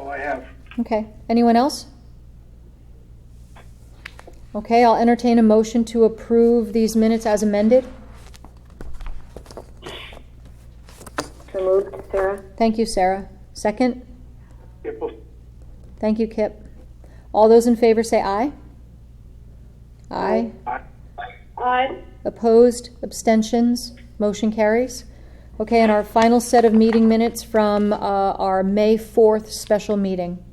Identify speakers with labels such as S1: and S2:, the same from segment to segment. S1: have.
S2: Okay, anyone else? Okay, I'll entertain a motion to approve these minutes as amended.
S3: So moved, Sarah?
S2: Thank you, Sarah. Second?
S1: Kipple,
S2: Thank you, Kip. All those in favor say aye. Aye.
S1: aye.
S3: Aye.
S2: Opposed, abstentions, motion carries. Okay, and our final set of meeting minutes from uh, our May 4th special meeting.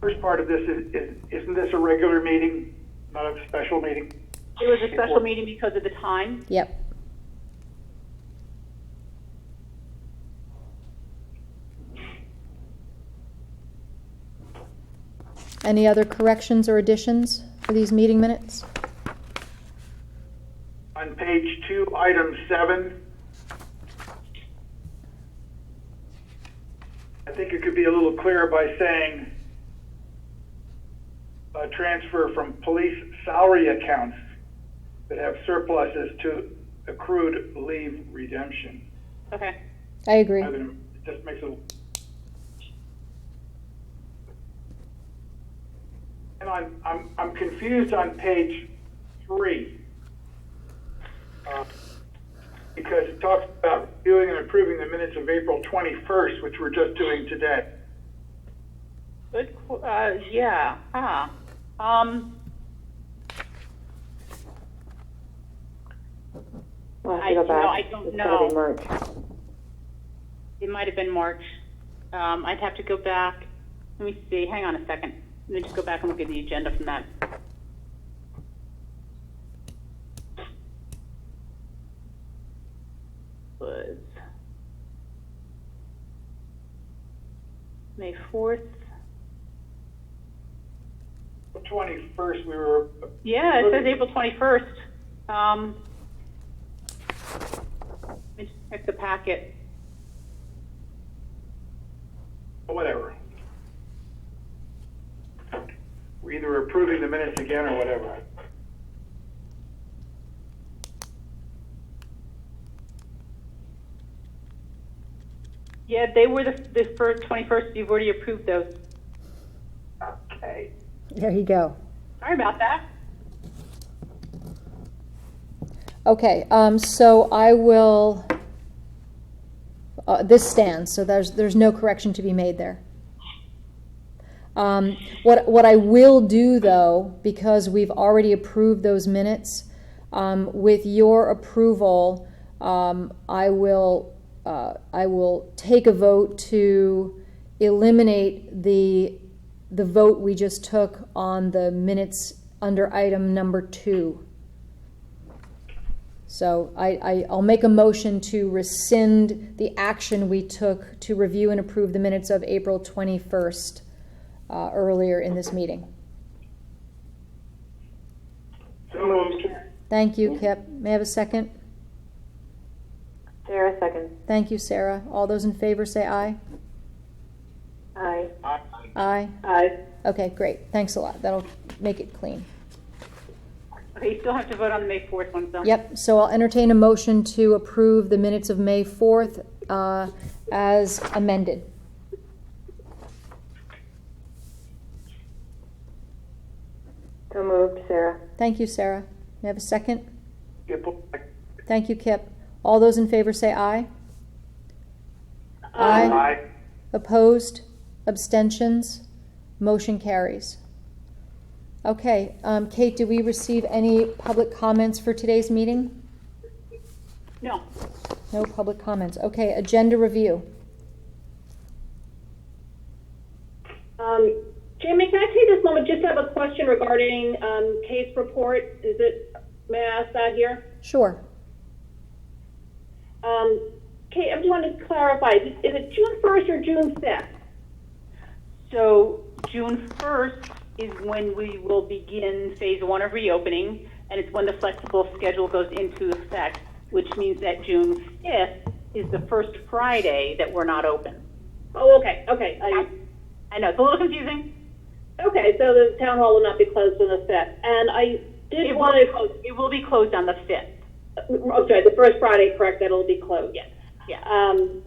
S1: First part of this is, is- isn't this a regular meeting, not a special meeting?
S4: It was a special meeting because of the time.
S2: Yep. Any other corrections or additions for these meeting minutes?
S1: On page two, item seven, I think it could be a little clearer by saying a transfer from police salary accounts that have surpluses to accrued leave redemption.
S4: Okay.
S2: I agree.
S1: I mean, It just makes it. And I'm, I'm, I'm confused on page three. Uh, Because it talks about reviewing and approving the minutes of April 21st, which we're just doing today.
S4: Good, qu- uh, yeah, huh. Um,
S3: We'll have
S4: I-
S3: to go
S4: you know,
S3: back.
S4: I don't
S3: It's gotta
S4: know.
S3: be March.
S4: it might have been March. Um, I'd have to go back. Let me see, hang on a second. Let me just go back and look at the agenda from that. Was May 4th?
S1: 21st, we were,
S4: Yeah, it says April 21st. Um, Let me just check the packet.
S1: whatever. We're either approving the minutes again or whatever.
S4: Yeah, they were the, the first, 21st, you've already approved those.
S1: Okay.
S5: There you go.
S4: Sorry about that.
S2: Okay, um, so I will, uh, this stands, so there's, there's no correction to be made there. Um, what, what I will do though, because we've already approved those minutes, um, with your approval, um, I will, uh, I will take a vote to eliminate the, the vote we just took on the minutes under item number two. So I, I, I'll make a motion to rescind the action we took to review and approve the minutes of April 21st uh, earlier in this meeting.
S1: So moved.
S2: Thank you, Kip. May I have a second?
S3: Sarah, second.
S2: Thank you, Sarah. All those in favor say aye.
S3: Aye.
S1: Aye.
S2: Aye.
S3: Aye.
S2: Okay, great. Thanks a lot. That'll make it clean.
S4: Okay, you still have to vote on the May 4th one, though.
S2: Yep, so I'll entertain a motion to approve the minutes of May 4th uh, as amended.
S3: So moved, Sarah.
S2: Thank you, Sarah. May I have a second?
S1: Kipple,
S2: Thank you, Kip. All those in favor say aye.
S1: Aye.
S2: Opposed? Abstentions? Motion carries. Okay, um, Kate, do we receive any public comments for today's meeting?
S4: No.
S2: No public comments. Okay, agenda review.
S6: Um, Jamie, can I take this moment just to have a question regarding, um, case report? Is it, may I ask that here?
S2: Sure.
S6: Um, Kate, I just wanted to clarify, is it- is it June first or June fifth?
S4: So June 1st is when we will begin Phase 1 of reopening, and it's when the flexible schedule goes into effect, which means that June 5th is the first Friday that we're not open.
S6: Oh, okay, okay, I,
S4: I know, it's a little confusing.
S6: okay, so the town hall will not be closed on the fifth, and I
S4: It
S6: did
S4: will,
S6: want to,
S4: it will be closed on the 5th.
S6: oh, sorry, the first Friday, correct, that'll be closed.
S4: Yes, yeah.
S6: Um,